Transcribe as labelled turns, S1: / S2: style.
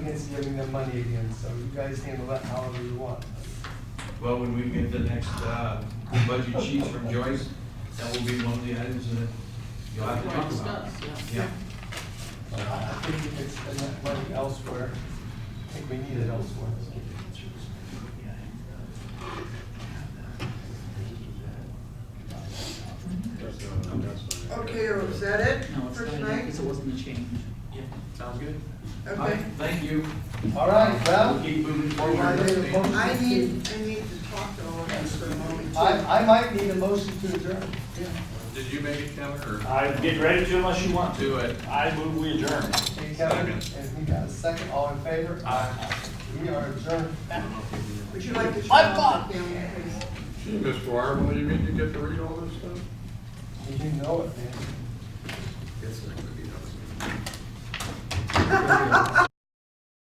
S1: against giving them money again, so you guys handle that however you want.
S2: Well, when we get the next uh, budget sheets from Joyce, that will be one of the items that you'll have to talk about.
S3: Discuss,
S2: Yeah,
S1: I I think you could spend that money elsewhere. I think we need it elsewhere.
S4: Okay, or is that it
S3: No, it's
S4: for
S3: not, because
S4: tonight?
S3: it wasn't a change.
S2: yeah, sounds good. All right,
S4: Okay.
S2: Thank you.
S1: All right,
S2: We'll
S1: well,
S2: keep moving
S1: I made a
S2: forward.
S1: motion.
S4: I need, I need to talk to all of us for a moment. too.
S1: I, I might need a motion to adjourn.
S2: Did you make it, Kevin, or
S5: I'm getting ready to unless you want to.
S2: do it?
S5: I move we adjourn.
S1: Hey, Kevin, and we got a second, all in favor? Aye. We are adjourned.
S4: Would you like to shut off the camera, please?
S6: Gee, Mr. Dwyer, when do you mean you get to read all this stuff?
S1: You know it, man.
S6: Yes, sir.